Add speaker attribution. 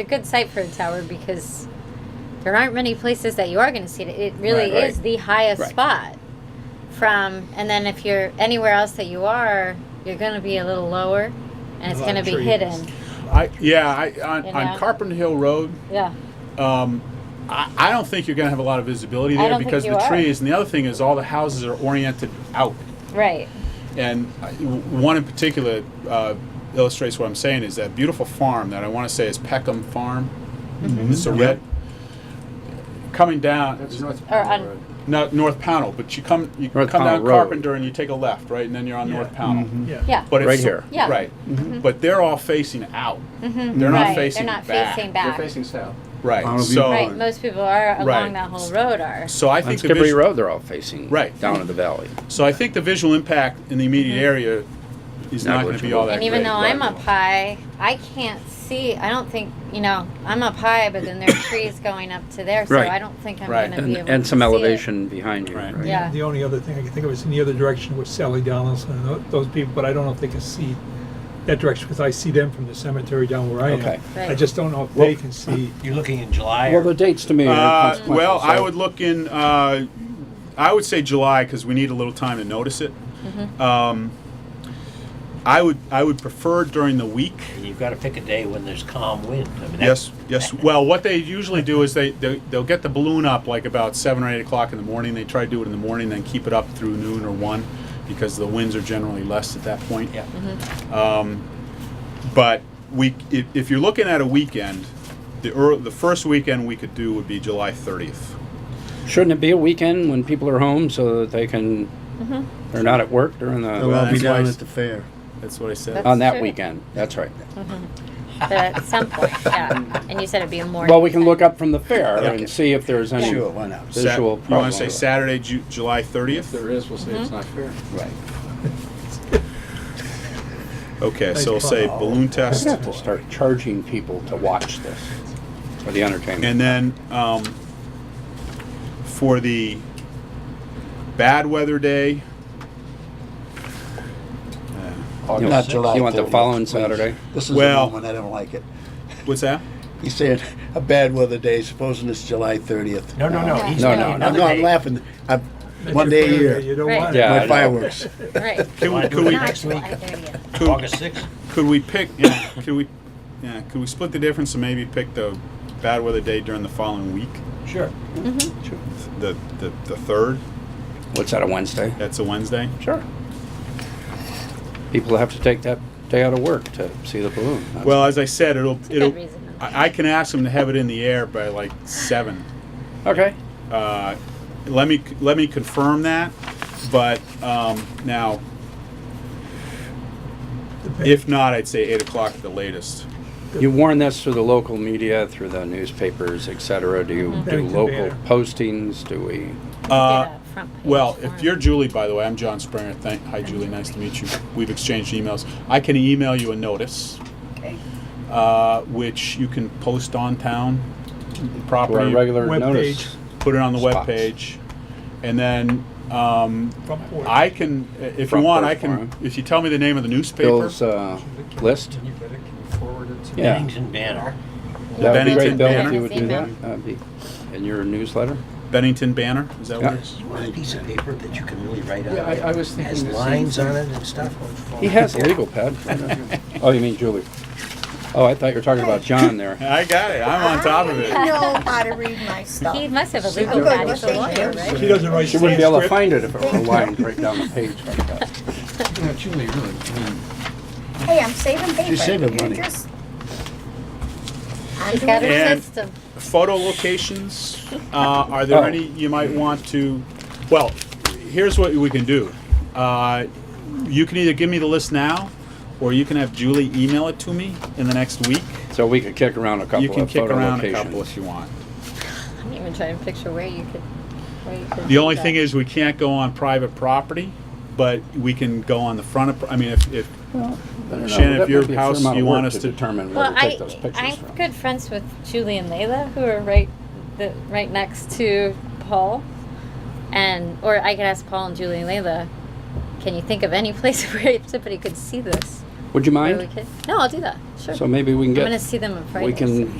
Speaker 1: a good site for a tower because there aren't many places that you are going to see it. It really
Speaker 2: Right, right.
Speaker 1: is the highest
Speaker 2: Right.
Speaker 1: spot from, and then if you're anywhere else that you are, you're going to be a little lower, and it's
Speaker 3: lot
Speaker 1: going to
Speaker 3: of
Speaker 1: be
Speaker 3: trees.
Speaker 1: hidden.
Speaker 2: I, yeah, I, on,
Speaker 1: You know?
Speaker 2: on Carpenter Hill Road,
Speaker 1: Yeah,
Speaker 2: um, I, I don't think you're gonna have a lot of visibility
Speaker 1: I
Speaker 2: there
Speaker 1: don't think
Speaker 2: because of
Speaker 1: you
Speaker 2: the
Speaker 1: are.
Speaker 2: trees. And the other thing is all the houses are oriented out.
Speaker 1: right.
Speaker 2: And I- w- one in particular uh, illustrates what I'm saying is that beautiful farm that I wanna say is Peckham Farm.
Speaker 1: Mm-hmm.
Speaker 2: It's
Speaker 4: Mm-hmm.
Speaker 2: a red, coming down,
Speaker 5: That's North
Speaker 1: Or
Speaker 5: Powell
Speaker 1: on-
Speaker 5: Road.
Speaker 2: not North Pownell, but you come, you come
Speaker 4: North
Speaker 2: down
Speaker 4: Pownell Road. Mm-hmm.
Speaker 2: Carpenter and you take a left, right? And then you're on
Speaker 3: Yeah.
Speaker 2: North Pownell.
Speaker 3: Yeah.
Speaker 1: Yeah.
Speaker 2: But it's
Speaker 4: Right
Speaker 2: so-
Speaker 4: here.
Speaker 1: Yeah. Mm-hmm.
Speaker 2: Right. But they're all facing out. They're
Speaker 1: right.
Speaker 2: not facing
Speaker 1: They're not
Speaker 2: back.
Speaker 1: facing
Speaker 5: They're
Speaker 1: back.
Speaker 5: facing south.
Speaker 2: Right.
Speaker 4: Mountain View
Speaker 2: So,
Speaker 1: right. Most people are along
Speaker 2: Right.
Speaker 1: that whole road are.
Speaker 2: so I
Speaker 4: On
Speaker 2: think the
Speaker 4: Skibberey
Speaker 2: vis-
Speaker 4: Road, they're all facing
Speaker 2: Right.
Speaker 4: down in the valley.
Speaker 2: So I think the visual impact in the immediate area is
Speaker 4: Not
Speaker 2: not, going to be
Speaker 4: appreciable.
Speaker 2: all that
Speaker 1: Mm-hmm. And even
Speaker 2: great.
Speaker 1: though I'm up high, I can't see. I don't think you know. I'm up high, but then there are trees going up to there, so
Speaker 4: Right.
Speaker 1: I don't think I'm going
Speaker 2: Right.
Speaker 1: to be
Speaker 4: And,
Speaker 1: able
Speaker 4: and
Speaker 1: to
Speaker 4: some
Speaker 1: see it.
Speaker 4: elevation behind you.
Speaker 2: Right.
Speaker 1: Yeah.
Speaker 3: The only other thing I can think of is in the other direction with Sally Donaldson and tho- those people, but I don't know if they can see that direction because I see them from the cemetery down where I
Speaker 4: Okay.
Speaker 3: am.
Speaker 1: Right.
Speaker 3: I just don't know if they can see.
Speaker 6: You're looking in July
Speaker 4: Well, the
Speaker 6: or
Speaker 4: dates to me are
Speaker 2: Uh,
Speaker 4: consequential.
Speaker 2: well, I
Speaker 4: so-
Speaker 2: would look in. Uh, I would say July because we need a little time to notice it.
Speaker 1: Mm-hmm.
Speaker 2: Um, I would. I would prefer during the week.
Speaker 6: you've got to pick a day when there's calm wind. I mean,
Speaker 2: Yes.
Speaker 6: that's-
Speaker 2: Yes. Well, what they usually do is they, they they'll get the balloon up like about seven or eight o'clock in the morning. They try to do it in the morning, then keep it up through noon or one, because the winds are generally less at that point.
Speaker 6: Yeah.
Speaker 5: Mm-hmm.
Speaker 2: But we, if, if you're looking at a weekend, the ear the first weekend we could do would be July 30th.
Speaker 4: Shouldn't it be a weekend when people are home so that they can,
Speaker 1: Mm-hmm.
Speaker 4: they're not at work during
Speaker 5: They'll
Speaker 4: the,
Speaker 2: Oh, Well,
Speaker 5: all be
Speaker 2: that's why
Speaker 5: down
Speaker 2: it's-
Speaker 5: at the fair.
Speaker 2: That's what I said.
Speaker 1: That's-
Speaker 4: on that
Speaker 1: true.
Speaker 4: weekend? That's right.
Speaker 1: But at some point, yeah. And you said it'd be a morning.
Speaker 4: Well, we can
Speaker 1: thing.
Speaker 4: look up from the fair and
Speaker 5: Okay.
Speaker 4: see if there's any
Speaker 5: Sure, why not?
Speaker 2: Sat-
Speaker 4: visual
Speaker 2: You want
Speaker 4: problem.
Speaker 2: to say Saturday, Ju- July
Speaker 5: If
Speaker 2: 30th?
Speaker 5: there is, we'll say it's not fair.
Speaker 4: Right.
Speaker 2: Okay, so we'll say balloon
Speaker 4: We
Speaker 2: test.
Speaker 4: have to start charging people to watch this for the entertainment.
Speaker 2: And then um, for the bad weather day,
Speaker 4: want-
Speaker 7: Not July
Speaker 4: you want the
Speaker 7: 30th,
Speaker 4: following
Speaker 7: please.
Speaker 4: Saturday?
Speaker 7: This is the
Speaker 2: Well-
Speaker 7: moment I don't like it.
Speaker 2: what's that?
Speaker 7: He's saying a bad weather day, supposing it's July 30th.
Speaker 6: No, no, no.
Speaker 1: No.
Speaker 6: He's
Speaker 4: No,
Speaker 6: thinking
Speaker 4: no, no.
Speaker 7: I'm
Speaker 6: another
Speaker 7: not
Speaker 6: day.
Speaker 7: laughing. I'm,
Speaker 3: That's
Speaker 7: one
Speaker 3: your
Speaker 7: day a
Speaker 3: fair
Speaker 7: year,
Speaker 3: You don't
Speaker 1: Right.
Speaker 3: want
Speaker 4: Yeah.
Speaker 3: it.
Speaker 4: I
Speaker 7: my
Speaker 4: know.
Speaker 7: fireworks.
Speaker 1: Right.
Speaker 2: Can we,
Speaker 6: July
Speaker 2: could we,
Speaker 1: Not
Speaker 6: next week.
Speaker 1: July 30th.
Speaker 2: could,
Speaker 6: August 6th.
Speaker 2: could we pick, yeah, could we, yeah, could we split the difference and maybe pick the bad weather day during the following week?
Speaker 6: Sure.
Speaker 1: Mm-hmm.
Speaker 2: The, the, the third,
Speaker 4: What's that, a Wednesday?
Speaker 2: that's a Wednesday?
Speaker 4: Sure. People have to take that day out of work to see the balloon. That's-
Speaker 2: Well, as I said, it'll it'll.
Speaker 1: reason.
Speaker 2: I, I can ask them to have it in the air by like seven.
Speaker 4: Okay.
Speaker 2: Uh, let me let me confirm that. But um, now, if not, I'd say eight o'clock at the latest.
Speaker 4: You warn this through the local media, through the newspapers, et cetera? Do you do
Speaker 3: Bennington
Speaker 4: local
Speaker 3: Banner.
Speaker 4: postings? Do we?
Speaker 2: Uh,
Speaker 1: Get a front page
Speaker 2: well, if
Speaker 1: form.
Speaker 2: you're Julie, by the way, I'm John Springer. Thank, hi, Julie. Nice to meet you. We've exchanged emails. I can email you a notice,
Speaker 1: Okay.
Speaker 2: uh, which you can post on town
Speaker 4: Do our
Speaker 2: property.
Speaker 4: regular
Speaker 3: Web
Speaker 4: notice?
Speaker 3: page.
Speaker 2: put it on the web
Speaker 4: Spots.
Speaker 2: page, and then um,
Speaker 3: Front porch.
Speaker 2: I can, if you
Speaker 4: Front
Speaker 2: want,
Speaker 4: porch
Speaker 2: I can.
Speaker 4: forum.
Speaker 2: If you tell me the name of the newspaper,
Speaker 4: Bill's uh, list?
Speaker 5: Can you forward it to
Speaker 4: Yeah.
Speaker 6: Bennington Banner.
Speaker 2: The
Speaker 4: That'd be
Speaker 2: Bennington
Speaker 4: great, Bill,
Speaker 2: Banner.
Speaker 4: if you would do
Speaker 1: Email.
Speaker 4: that. That'd be in your newsletter.
Speaker 2: Bennington Banner. Is that what
Speaker 4: Yeah.
Speaker 2: it is?
Speaker 6: You want a piece of paper that you can really write on?
Speaker 5: Yeah, I- I was thinking
Speaker 6: Has
Speaker 5: the same
Speaker 6: lines on it
Speaker 5: thing.
Speaker 6: and stuff.
Speaker 4: He has a legal pad. Oh, you mean Julie? Oh, I thought you were talking about John there.
Speaker 2: I got it. I'm on top of
Speaker 8: I
Speaker 2: it.
Speaker 8: know how to read my stuff. Oh,
Speaker 1: He must have a legal
Speaker 8: good
Speaker 1: pad.
Speaker 8: with
Speaker 1: He's a
Speaker 8: things.
Speaker 1: lawyer, right?
Speaker 3: She doesn't write
Speaker 4: She wouldn't be able to
Speaker 3: transcript.
Speaker 4: find it if it were lined right down the page like that.
Speaker 5: You know, Julie, really, I mean,
Speaker 8: Hey, I'm saving paper.
Speaker 7: saving
Speaker 8: You're
Speaker 7: money.
Speaker 8: just- I'm
Speaker 1: He's got
Speaker 8: doing
Speaker 1: a
Speaker 2: And-
Speaker 1: system.
Speaker 2: Photo locations. Uh, are there
Speaker 4: Oh.
Speaker 2: any you might want to? Well, here's what we can do. Uh, you can either give me the list now, or you can have Julie email it to me in the next week.
Speaker 4: So we could kick around a couple
Speaker 2: You can
Speaker 4: of
Speaker 2: kick
Speaker 4: photo
Speaker 2: around a couple
Speaker 4: locations.
Speaker 2: if you want.
Speaker 1: I'm even trying to picture where you could. Where you could
Speaker 2: The
Speaker 1: do
Speaker 2: only
Speaker 1: that.
Speaker 2: thing is, we can't go on private property, but we can go on the front of, I mean, if, if,
Speaker 4: I don't know,
Speaker 2: Shannon,
Speaker 4: that
Speaker 2: if your
Speaker 4: might be a fair
Speaker 2: house,
Speaker 4: amount of
Speaker 2: you
Speaker 4: work
Speaker 2: want us to-
Speaker 4: determine where
Speaker 1: Well,
Speaker 4: to
Speaker 1: I,
Speaker 4: take those pictures
Speaker 1: I'm
Speaker 4: from.
Speaker 1: good friends with Julie and Layla, who are right, the, right next to Paul, and or I could ask Paul and Julie and Layla, can you think of any place where somebody could see this?
Speaker 4: Would you
Speaker 1: Where we
Speaker 4: mind?
Speaker 1: could? No, I'll do that. Sure.
Speaker 4: So maybe we can
Speaker 1: I'm gonna
Speaker 4: get,
Speaker 1: see them on Friday.
Speaker 4: we
Speaker 1: so-
Speaker 4: can